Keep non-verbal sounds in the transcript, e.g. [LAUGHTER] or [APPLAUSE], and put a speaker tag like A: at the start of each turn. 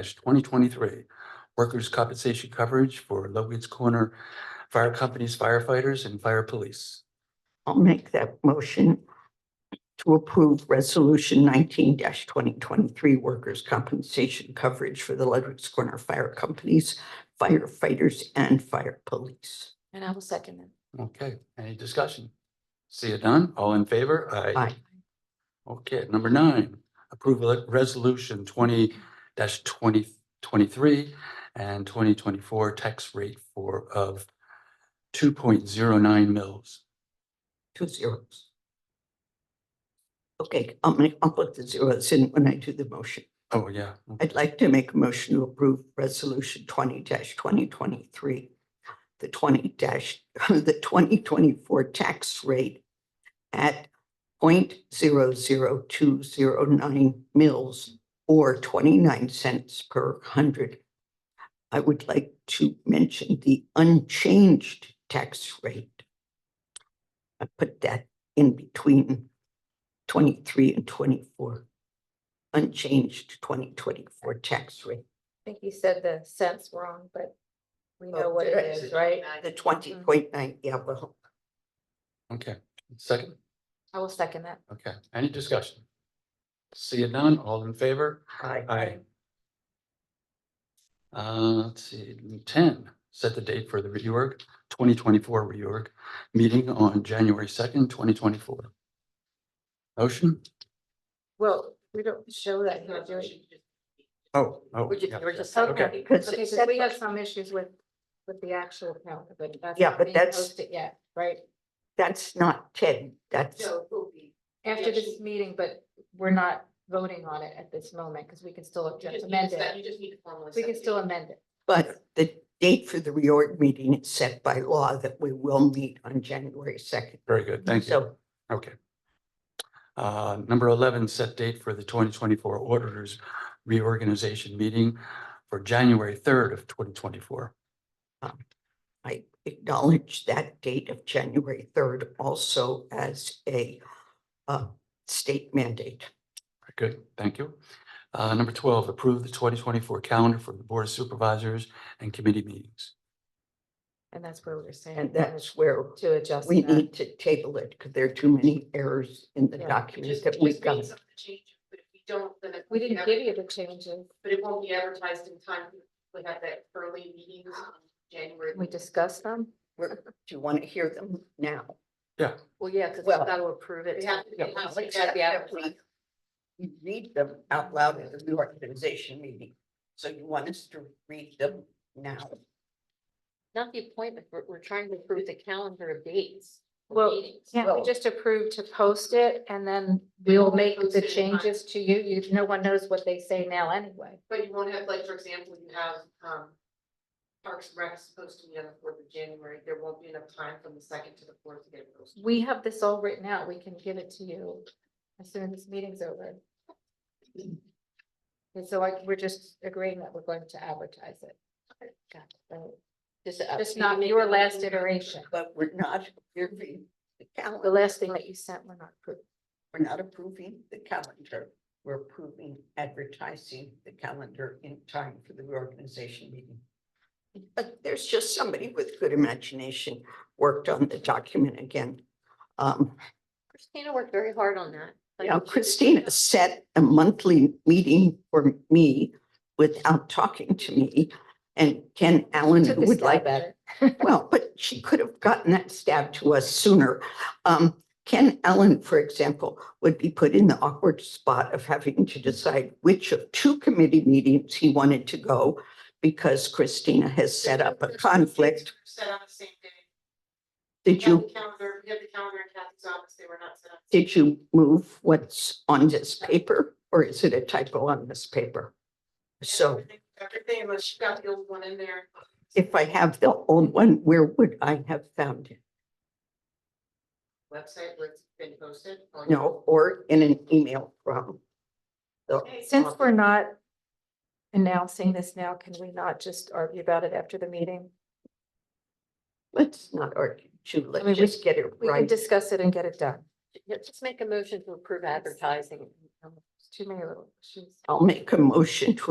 A: twenty twenty-three. Workers' compensation coverage for Logan's Corner Fire Company's firefighters and fire police.
B: I'll make that motion to approve resolution nineteen twenty twenty-three workers' compensation coverage for the Ledwicks Corner Fire Companies, firefighters and fire police.
C: And I will second it.
A: Okay, any discussion? See it done? All in favor?
B: Aye.
A: Okay, number nine, approval of resolution twenty twenty twenty-three and twenty twenty-four tax rate for of two point zero nine mils.
B: two zeros. Okay, I'll make, I'll put the zeros in when I do the motion.
A: Oh, yeah.
B: I'd like to make a motion to approve resolution twenty twenty twenty-three. The twenty [LAUGHS] the twenty twenty-four tax rate at 0.00209 mils or twenty-nine cents per hundred. I would like to mention the unchanged tax rate. I put that in between twenty-three and twenty-four unchanged twenty twenty-four tax rate.
C: I think you said the cents wrong, but we know
B: Oh,
C: what
B: did I?
C: it is, right? Mm-hmm.
B: The twenty point nine, yeah, well,
A: Okay, second,
C: I will second that.
A: okay, any discussion? See it done? All in favor?
B: I,
A: Aye. Uh, let's see, ten, set the date for the reorg, twenty twenty-four reorg, meeting on January second, twenty twenty-four. Motion?
C: Well, we don't show that here, do we?
A: Oh, oh.
B: We're ju-
A: yeah.
B: we're just-
A: Okay.
C: Okay,
B: Because
C: Okay,
B: it
C: 'cause
B: said-
C: we have some issues with, with the actual count, but that's.
B: Yeah,
C: not
B: but
C: being
B: that's-
C: posted Yet, right?
B: that's not ten, that's,
C: After this meeting, but we're not voting on it at this moment, because we can still just amend it.
D: just need to formally.
C: We can still amend it.
B: but the date for the reorg meeting is set by law that we will meet on January second.
A: Very good, thank you,
B: So
A: okay. Uh, number eleven, set date for the twenty twenty-four auditors reorganization meeting for January third of twenty twenty-four.
B: I acknowledge that date of January third also as a uh state mandate.
A: Good, thank you. Uh, number twelve, approve the twenty twenty-four calendar for the Board of Supervisors and committee meetings.
C: And that's where we we're saying.
B: And that's where
C: To adjust.
B: we
C: that.
B: need to table it because there are too many errors in the
C: Yeah, it
B: document that we got.
D: But if we don't, then. it
C: We
D: won't
C: didn't
D: be
C: give you the
D: advertised-
C: changes.
D: But it won't be advertised in time. We have that early meeting in January.
C: We discussed them?
B: We're- Do you want to hear them now?
C: Well, yeah, because
B: Well-
C: to approve
D: We have.
B: Yeah,
D: we have to
B: except
D: be
B: that
D: advertised.
B: we we read them out loud at the reorganization meeting. So you want us to read them now?
E: Not the appointment, we're, we're trying to approve the calendar of dates. for
C: Well,
E: meetings.
C: Can't we
B: Well-
C: just approve to post it and then we'll make
D: Post
C: the
D: it in time.
C: changes to you? You, no one knows what they say now anyway.
D: But you won't have, like, for example, you have, um, Parks and Rec is supposed to meet on the fourth of January. There won't be enough time from the second to the fourth to get it posted.
C: We have this all written out. We can give it to you as soon as this meeting's over. And so like, we're just agreeing that we're going to advertise it.
E: Got it. So, Just. uh,
C: Just
E: you
C: not
E: make
C: your
E: a
C: last
E: motion.
C: iteration.
B: But we're not approving the
C: The
B: calendar.
C: last thing that you sent, we're not approving.
B: We're not approving the calendar. We're approving advertising the calendar in time for the reorganization meeting. But there's just somebody with good imagination worked on the document again. Um,
E: Christina worked very hard on that. Like,
B: Now
E: she-
B: Christina set a monthly meeting for me without talking to me. And Ken Allen
C: Took
B: who
C: a
B: would
C: stab
B: like,
C: at it.
B: well, but she could have gotten that stab to us sooner. Um, Ken Allen, for example, would be put in the awkward spot of having to decide which of two committee meetings he wanted to go because Christina has set up a conflict.
D: Set on the same day.
B: Did
D: We have
B: you,
D: the calendar, we have the calendar in Kathy's office. They were not set up.
B: did you move what's on this paper or is it a typo on this paper? So.
D: Everything- Everything unless she got the old one in there.
B: If I have the old one, where would I have found it?
D: Website where it's been posted. on-
B: No, or in an email from? the-
D: Okay,
C: Since we're not announcing this now, can we not just argue about it after the meeting?
B: Let's not argue, Ju,
C: I mean,
B: let's
C: we-
B: just get it
C: We can
B: right.
C: discuss it and get it done.
E: yeah, Just make a motion to approve advertising.
C: It's Too many little issues.
B: I'll make a motion to